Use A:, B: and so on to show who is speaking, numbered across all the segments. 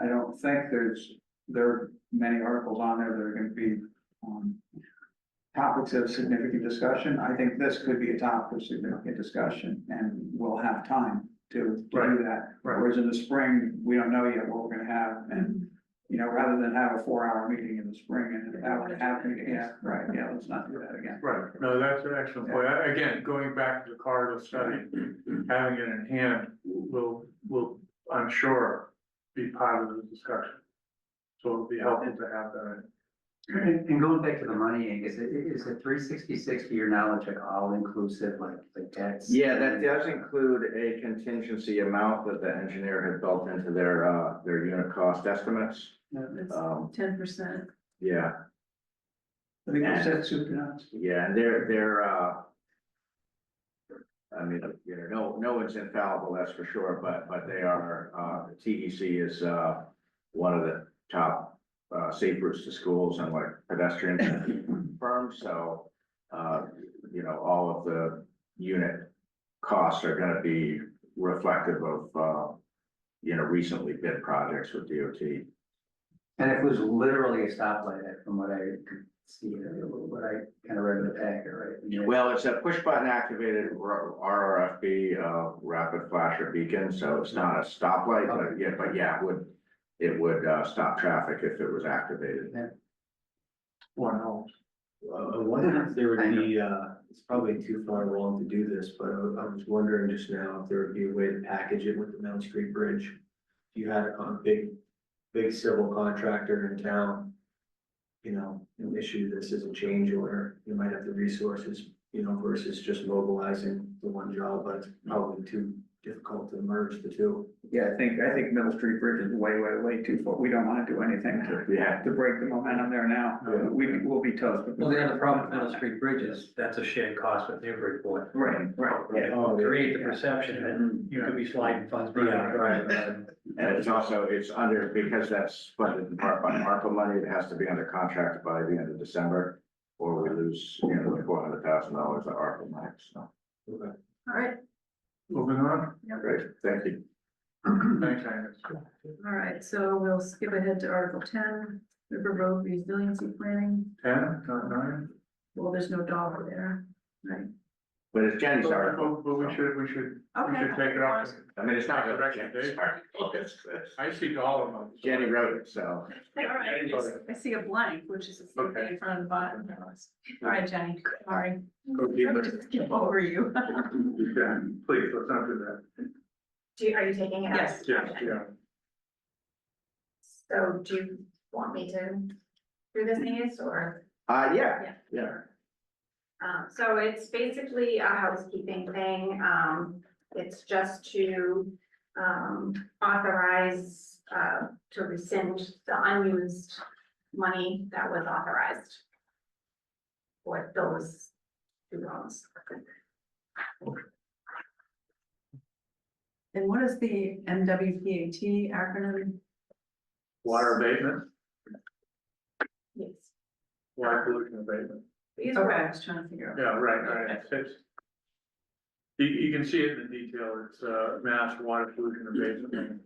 A: I don't think there's, there are many articles on there that are gonna be, um. Topics of significant discussion, I think this could be a topic of significant discussion, and we'll have time to to
B: Right,
A: do that.
B: right.
A: Whereas in the spring, we don't know yet what we're gonna have, and, you know, rather than have a four-hour meeting in the spring and have it happen, yeah, right, yeah, let's not do that again.
B: Right, no, that's an excellent point. I- Again, going back to the corridor study, having it in hand will, will, I'm sure, be part of the discussion. So it'll be helpful to have that.
C: And and going back to the money, Angus, i- i- is it three sixty-six to your knowledge, like all inclusive, like, like that's?
D: Yeah, that does include a contingency amount that the engineer had built into their, uh, their unit cost estimates. Um,
E: Ten percent.
D: yeah,
A: I think you said soup to nuts.
D: yeah, and they're, they're, uh, I mean, you know, no, no one's infallible, that's for sure, but, but they are, uh, TEC is, uh, one of the top, uh, safe routes to schools and like pedestrian firms, so, uh, you know, all of the unit costs are gonna be reflective of, uh, you know, recently bid projects with DOT.
C: And it was literally a stoplight, uh, from what I could see, uh, what I kind of read in the packet, right? And you-
D: Well, it's a push button activated R- RRFB, uh, rapid flasher beacon, so it's not a stoplight, but yeah, but yeah, it would. It would, uh, stop traffic if it was activated.
B: One home.
F: I wonder if there would be, uh, it's probably too far along to do this, but I I was wondering just now if there would be a way to package it with the Mount Street Bridge. If you had a con- big, big civil contractor in town, you know, and issue this as a change order, you might have the resources, you know, versus just mobilizing the one job, but it's probably too difficult to merge the two.
A: Yeah, I think, I think Middle Street Bridge is way, way, way too far, we don't wanna do anything to
D: Yeah,
A: to break the momentum there now,
F: Yeah.
A: we, we'll be toast.
C: Well, the other problem with Middle Street Bridge is that's a shared cost with Newburyport.
A: Right, right, yeah.
F: Oh,
C: Create the perception that you could be sliding funds. beyond,
F: Right,
D: and it's also, it's under, because that's funded in part by ARPA money, it has to be under contract by the end of December. Or we lose, you know, the four hundred thousand dollars of ARPA money, so,
F: okay.
E: All right,
B: Moving on.
D: great, thank you.
B: Thanks, Angus.
E: all right, so we'll skip ahead to Article ten, River Road Resiliency Planning.
B: Ten, not nine.
E: Well, there's no dollar there, right?
D: But it's Jenny's
B: But
D: article,
B: Oh, but we should, we should, we
E: Okay.
B: should take it off.
D: I mean, it's
B: That's
D: not really
B: correct,
D: Jenny's
B: Dave.
D: article, it's, it's-
B: I see dollar amounts.
D: Jenny wrote it, so.
E: All right, I just- I see a blank, which is the same thing in front of the bottom. All right, Jenny, sorry. I'm just skip over you.
B: Yeah, please, let's not do that.
G: Do you, are you taking it? out?
E: Yes.
B: Yes,
G: Okay.
B: yeah.
G: So do you want me to do this news or,
D: Uh, yeah,
G: Yeah.
D: yeah.
G: um, so it's basically a housekeeping thing, um, it's just to. Um, authorize, uh, to rescind the unused money that was authorized. For those two loans.
E: And what is the MWPAT acronym?
B: Water abatement,
G: Yes.
B: water pollution abatement.
G: These
E: Okay,
G: were
E: I was trying to figure out.
B: Yeah, right, right, it's- it's. You, you can see it in the detail, it's, uh, mass water pollution abatement.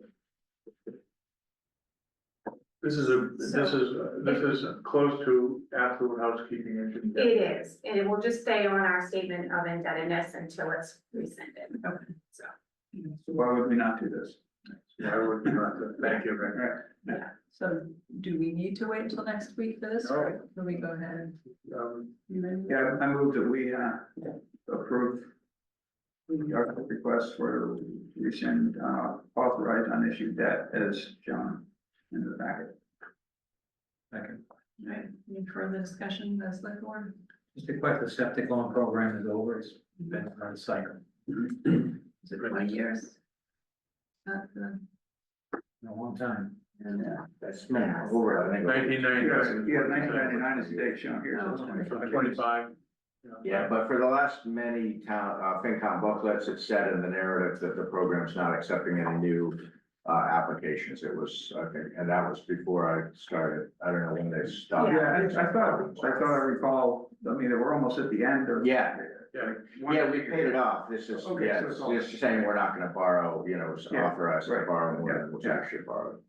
B: This is a, this is, uh, this is close to absolute housekeeping. as you can get.
G: It is, and it will just stay on our statement of indebtedness until it's rescinded.
A: So why would we not do this?
B: Yeah, I would not, thank you, Rick.
A: Right,
E: So do we need to wait until next week for this, or can we go ahead
B: Um,
E: and?
A: yeah, I move that we, uh, approve the article request for rescind, uh, authorized unissued debt as shown in the packet.
E: All right, any further discussion, that's the board?
C: Just a quick, the septic loan program is over, it's been on cycle.
E: Is it twenty years? Uh, Not the-
C: in a long time.
E: and, uh,
D: That's minimum over, I think.
B: Nineteen ninety.
A: Yeah, nineteen ninety-nine is the date shown here, so it's
E: Oh.
A: twenty-five years.
B: Twenty-five.
D: Yeah, but for the last many town, uh, FinCom booklets, it said in the narrative that the program's not accepting any new. Uh, applications, it was, I think, and that was before I started, I don't know when they stopped.
A: Yeah, I, I thought, I thought I recall, I mean, we're almost at the end of.
D: Yeah,
B: Yeah.
D: yeah, we paid it off, this is,
A: Okay,
D: yeah,
A: so it's all-
D: this is saying we're not gonna borrow, you know, it's
A: Yeah,
D: authorized to
A: right.
D: borrow more
A: Yeah,
D: than was
A: yeah.
D: actually borrowed.